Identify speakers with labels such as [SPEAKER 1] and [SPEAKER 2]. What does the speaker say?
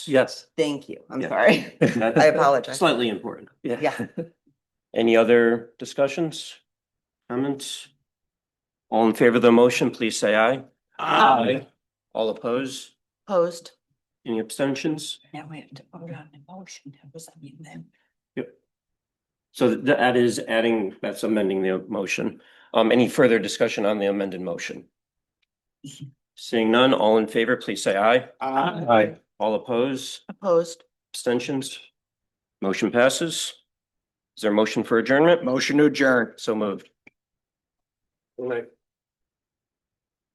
[SPEAKER 1] Yes.
[SPEAKER 2] Thank you. I'm
[SPEAKER 3] Yeah.
[SPEAKER 2] sorry. I apologize.
[SPEAKER 3] Slightly important.
[SPEAKER 2] Yeah.
[SPEAKER 3] Any other discussions? Comments? All in favor of the motion, please say aye.
[SPEAKER 1] Aye.
[SPEAKER 3] All opposed?
[SPEAKER 2] Opposed?
[SPEAKER 3] Any abstentions?
[SPEAKER 4] Now we have to vote on the motion. That was, I mean, then.
[SPEAKER 3] So th- that is adding, that's amending the motion. Um, any further discussion on the amended motion? Seeing none, all in favor, please say aye.
[SPEAKER 1] Aye.
[SPEAKER 3] All opposed?
[SPEAKER 2] Opposed?
[SPEAKER 3] Abstentions? Motion passes. Is there a motion for adjournment?
[SPEAKER 5] Motion to adjourn.
[SPEAKER 3] So moved.